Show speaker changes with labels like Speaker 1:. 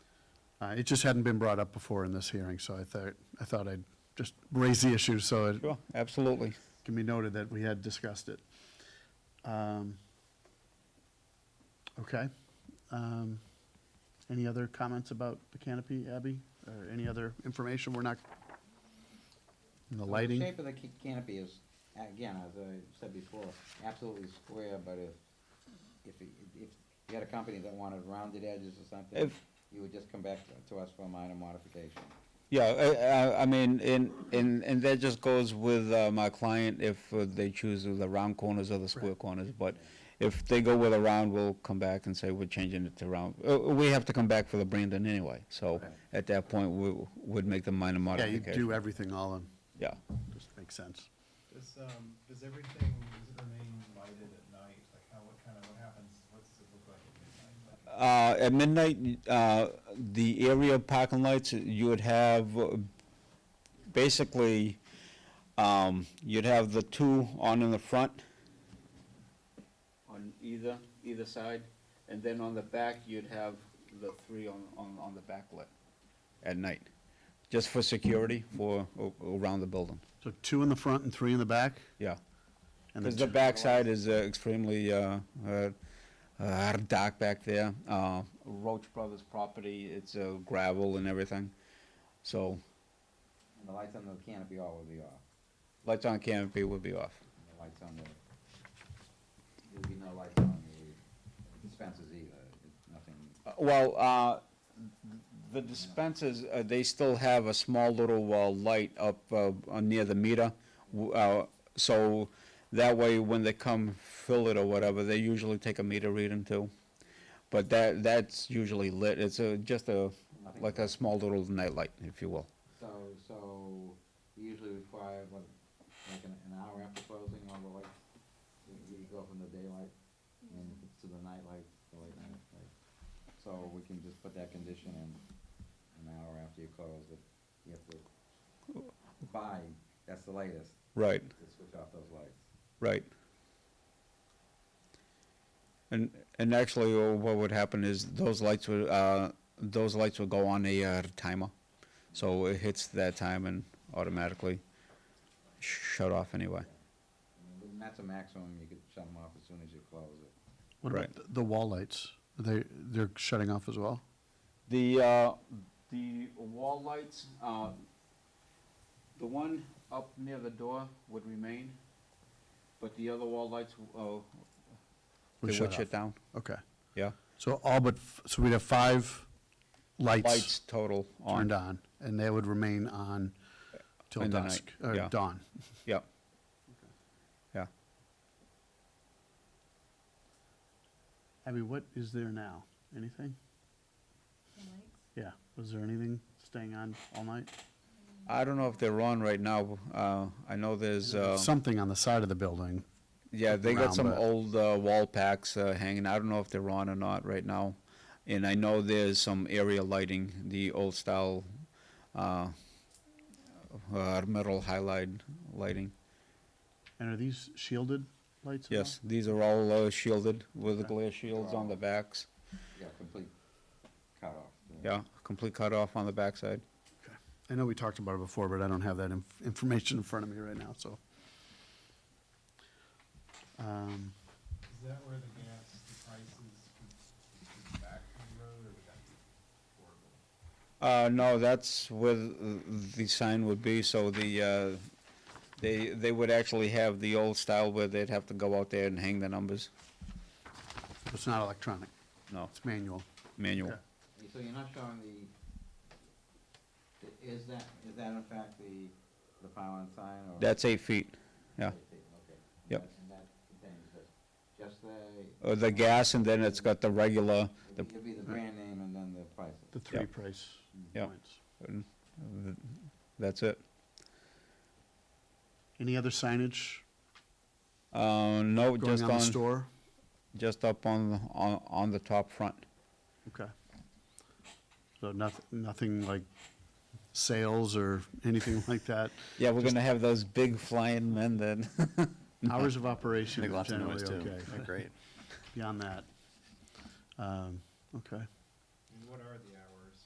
Speaker 1: Uh, It just hadn't been brought up before in this hearing, so I thought, I thought I'd just raise the issue so it
Speaker 2: Sure, absolutely.
Speaker 1: can be noted that we had discussed it. Um, Okay. Um, Any other comments about the canopy, Abby? Or any other information? We're not, and the
Speaker 3: The
Speaker 1: lighting?
Speaker 3: shape of the ca- canopy is, again, as I said before, absolutely square, but if, if, it- if you had a company that wanted rounded edges or something,
Speaker 2: If-
Speaker 3: you would just come back to us for a minor modification.
Speaker 2: Yeah, I- I, I mean, and, and, and that just goes with uh, my client if uh, they choose the round corners or the square corners. But if they go with a round, we'll come back and say we're changing it to round. Uh, We have to come back for the Brandon anyway, so
Speaker 3: Right.
Speaker 2: at that point, we would make the
Speaker 1: Yeah,
Speaker 2: minor
Speaker 1: you
Speaker 2: modification.
Speaker 1: do everything all in,
Speaker 2: Yeah.
Speaker 1: just makes sense.
Speaker 4: Does, um, does everything, does it remain lighted at night? Like how, what kind of, what happens, what does it look like at midnight? Like,
Speaker 2: Uh, at midnight, uh, the area parking lights, you would have, uh, basically, um, you'd have the two on in the front. On either, either side, and then on the back, you'd have the three on, on, on the backlit at night, just for security for, a- around the building,
Speaker 1: So two in the front and three in the back?
Speaker 2: yeah.
Speaker 1: and
Speaker 2: Because the
Speaker 1: two-
Speaker 2: backside is uh, extremely uh, uh, uh, dark back there. Uh, Roach Brothers property, it's uh, gravel and everything. So
Speaker 3: And the lights on the canopy all would be off,
Speaker 2: lights on canopy would be off.
Speaker 3: and the lights on the, there'd be no lights on the dispensers either, It's nothing,
Speaker 2: Uh, Well, uh, the dispensers, uh, they still have a small little uh, light up uh, uh, near the meter. W- uh, So that way, when they come fill it or whatever, they usually take a meter reading too. But that, that's usually lit. It's a, just a,
Speaker 3: nothing.
Speaker 2: like a small little nightlight, if you will.
Speaker 3: So, so we usually require, what, like an, an hour after closing, all the lights, you, you go from the daylight and to the night light, the late night light. So we can just put that condition in, an hour after you close, that you have to buy, that's the latest,
Speaker 2: Right,
Speaker 3: to switch off those lights.
Speaker 2: right. And, and actually, uh, what would happen is those lights would, uh, those lights would go on a uh, timer. So it hits that time and automatically sh- shut off anyway.
Speaker 3: And that's a maximum, you could shut them off as soon as you close it.
Speaker 1: What about
Speaker 2: Right.
Speaker 1: th- The wall lights, they, they're shutting off as well?
Speaker 2: The, uh, the wall lights, uh, the one up near the door would remain, but the other wall lights, uh,
Speaker 1: Would
Speaker 2: they
Speaker 1: shut
Speaker 2: would shut
Speaker 1: off.
Speaker 2: down,
Speaker 1: Okay.
Speaker 2: yeah.
Speaker 1: So all but, f- so we'd have five
Speaker 2: Lights
Speaker 1: lights
Speaker 2: total on.
Speaker 1: turned on, and they would remain on till
Speaker 2: In the
Speaker 1: dusk,
Speaker 2: night,
Speaker 1: or
Speaker 2: yeah.
Speaker 1: dawn.
Speaker 2: Yep. Yeah.
Speaker 1: Abby, what is there now? Anything?
Speaker 5: The lights?
Speaker 1: Yeah, was there anything staying on all night?
Speaker 2: I don't know if they're on right now. Uh, I know there's, uh,
Speaker 1: Something on the side of the building.
Speaker 2: yeah, they got some
Speaker 1: around, but-
Speaker 2: old, uh, wall packs, uh, hanging. I don't know if they're on or not right now. And I know there's some area lighting, the old style, uh, uh, metal highlight lighting.
Speaker 1: And are these shielded lights at all?
Speaker 2: Yes, these are all uh, shielded with
Speaker 1: Okay.
Speaker 2: glare shields on the backs.
Speaker 3: Yeah, complete cut off.
Speaker 2: Yeah, complete cutoff on the backside.
Speaker 1: I know we talked about it before, but I don't have that inf- information in front of me right now, so. Um,
Speaker 4: Is that where the gas, the prices would, would be back from the road or would that be horrible?
Speaker 2: Uh, no, that's where th- the sign would be, so the, uh, they, they would actually have the old style where they'd have to go out there and hang the numbers.
Speaker 1: It's not electronic,
Speaker 2: No,
Speaker 1: it's manual.
Speaker 2: manual.
Speaker 1: Okay.
Speaker 3: You- So you're not showing the, i- is that, is that in fact the, the pylon sign or?
Speaker 2: That's eight feet, yeah.
Speaker 3: Okay.
Speaker 2: Yep.
Speaker 3: And that contains just, just the,
Speaker 2: Uh, the gas, and then it's got the regular, the,
Speaker 3: it'd be the brand name and then the Hmm. price.
Speaker 1: The three
Speaker 2: Yeah.
Speaker 1: price
Speaker 2: Yeah.
Speaker 1: points.
Speaker 2: that's it.
Speaker 1: Any other signage
Speaker 2: Uh, no,
Speaker 1: going
Speaker 2: just
Speaker 1: on the
Speaker 2: on,
Speaker 1: store?
Speaker 2: just up on, the- on, on the top front.
Speaker 1: Okay. So nothing, nothing like sales or anything like that?
Speaker 2: Yeah, we're gonna have those big flying men then.
Speaker 1: Hours of operation
Speaker 6: Make
Speaker 1: is
Speaker 6: lots of noise
Speaker 1: generally
Speaker 6: too.
Speaker 1: okay.
Speaker 6: They're great.
Speaker 1: Beyond that. Um, Okay.